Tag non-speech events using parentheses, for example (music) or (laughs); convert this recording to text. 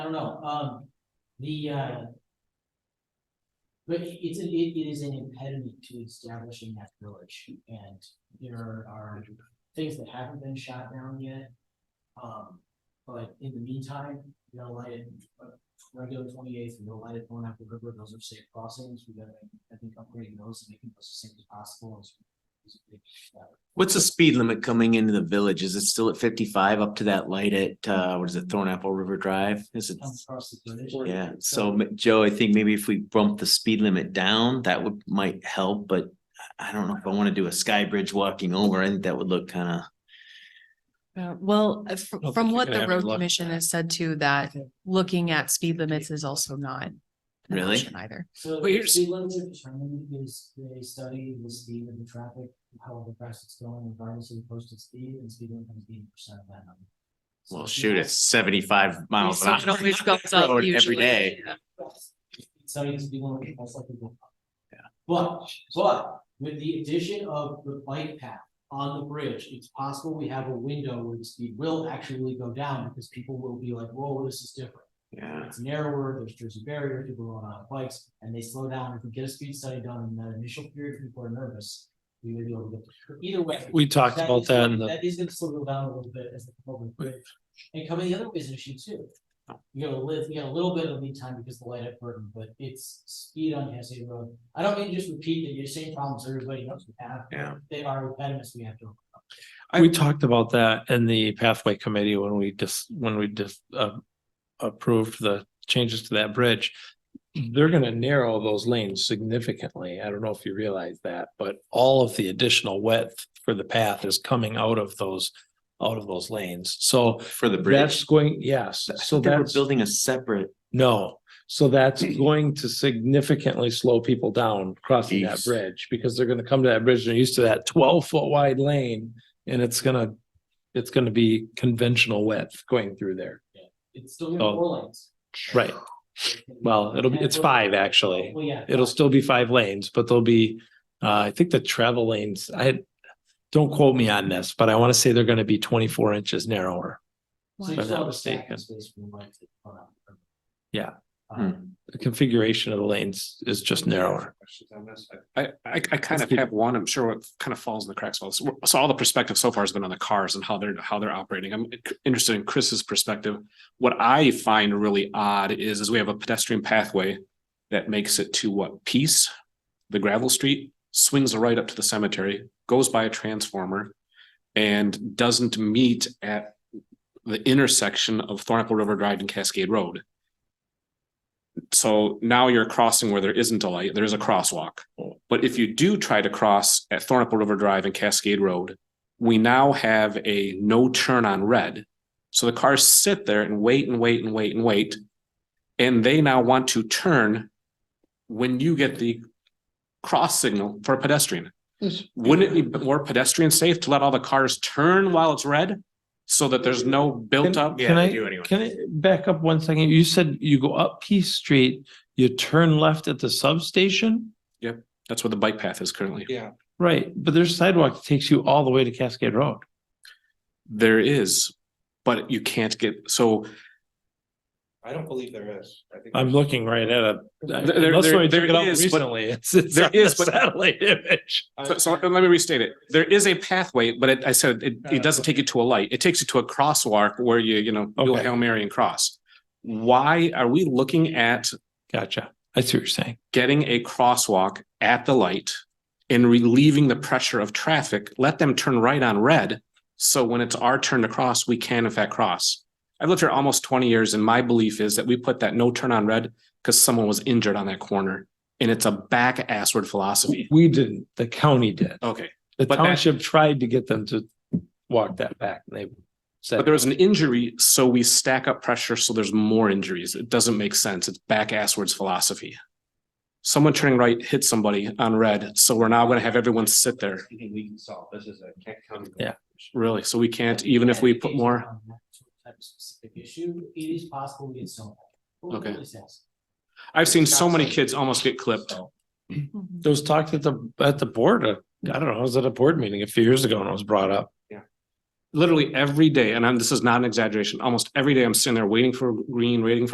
don't know, um, the, uh. But it- it's, a- it, it is an impediment to establishing that village, and there are things that haven't been shot down yet. Um, but in the meantime, you know, like, uh, regular twenty-eighth, and no lighted going up the river, those are safe crossings, we gotta, I think, upgrading those and making those as safe as possible is. is a big, uh, What's the speed limit coming into the village? Is it still at fifty-five up to that light at, uh, what is it, Thornapple River Drive? Is it? Comes across the village. Yeah, so m- Joe, I think maybe if we bump the speed limit down, that would, might help, but I I don't know if I want to do a sky bridge walking over. I think that would look kind of. Uh, Well, uh, fr- don't from think you're what gonna the have any road luck with commission that. has said too, that Okay. looking at speed limits is also not. an Really? option Either. So But the you're speed limit is determined is they study the speed of the traffic, however fast it's going, regardless of the posted speed and speed limit comes eighty percent of that number. So Well, if shoot, you it's seventy-five miles an So it hour. always goes up Road every usually, day. yeah. have- So you speed limit, that's like. Yeah. But, but with the addition of the bike path on the bridge, it's possible we have a window where the speed will actually go down because people will be like, whoa, this is different. Yeah, It's narrower, there's Jersey barrier, people are on bikes, and they slow down. If we get a speed study done in that initial period, people are nervous. We may be able to get, either way. We talked that about is- that in the, That is gonna slow people down a little bit as the public, and coming the other way is an issue too. You gotta live, you got a little bit of lead time because of the light at Burton, but it's speed on Hesse Road. I don't mean to just repeat that your same problems everybody knows we have. Yeah. They are impediments we have to. we talked about that in the pathway committee when we just, when we just, uh, approved the changes to that bridge. They're gonna narrow those lanes significantly. I don't know if you realize that, but all of the additional width for the path is coming out of those, out of those lanes. So for the that's bridge. going, yes, so They were that's. building a separate, No, so that's going to significantly slow people down crossing that Jeez. bridge because they're gonna come to that bridge and they're used to that twelve foot wide lane. And it's gonna, it's gonna be conventional width going through there. It's still gonna be Oh. four lanes. Right, well, it'll be, it's five actually. Well, yeah. It'll still be five lanes, but there'll be, uh, I think the travel lanes, I. Don't quote me on this, but I wanna say they're gonna be twenty four inches narrower. So if you I'm still not have a stacking mistaken. space for the light to run out. Yeah. hmm. Hmm. Um, The configuration of the lanes is just narrower. Questions on this? I, I, I kind of keep- have one, I'm sure it kind of falls in the cracks. of all this. So all the perspective so far has been on the cars and how they're, how they're operating. I'm interested in Chris's perspective. What I find really odd is, is we have a pedestrian pathway that makes it to what, Peace? The gravel street swings right up to the cemetery, goes by a transformer and doesn't meet at the intersection of Thornapple River Drive and Cascade Road. So now you're crossing where there isn't a light, there is a crosswalk. But if you do try to cross at Thornapple River Drive and Cascade Road, we now have a no turn on red. So the cars sit there and wait and wait and wait and wait. And they now want to turn when you get the cross signal for a pedestrian. Wouldn't it be more pedestrian safe to let all the cars turn while it's red? So that there's no built up? Can I- anyway. Can I back up one second? You said you go up Peace Street, you turn left at the substation? That's where the bike path is currently. Right, but there's a sidewalk that takes you all the way to Cascade Road. There is, but you can't get, so I don't believe there is. I think I'm looking right at it. there- Unless there- somebody took there it out is, but- (laughs) recently. It's, it's there on the is, but- satellite image. So, so let me restate it. There is a pathway, but it, I said, it, Yeah. it doesn't take you to a light. It takes you to a crosswalk where you, you know, do a Okay. Hail Mary and cross. Why are we looking at Gotcha. I see what you're saying. getting a crosswalk at the light and relieving the pressure of traffic? Let them turn right on red. So when it's our turn to cross, we can in fact cross. I've lived here almost twenty years and my belief is that we put that no turn on red because someone was injured on that corner. And it's a back assward philosophy. We didn't, the county did. Okay. The Oh, But that- township tried to get them to walk that back and they But said, there was an injury, so we stack up pressure, so there's more injuries. It doesn't make sense. It's back asswards philosophy. Someone turning right hit somebody on red, so we're now gonna have everyone sit there, I think we can solve. This is a Kent County. Yeah. really, so we can't, even if we put more. on that Type of specific issue, it is possible we get some. Well, Okay. it's asked. I've seen so many kids almost get clipped. Mm-hmm. there was talk at the, at the board, uh, I don't know, I was at a board meeting a few years ago and it was brought up. Literally every day, and I'm, this is not an exaggeration, almost every day I'm sitting there waiting for green, waiting for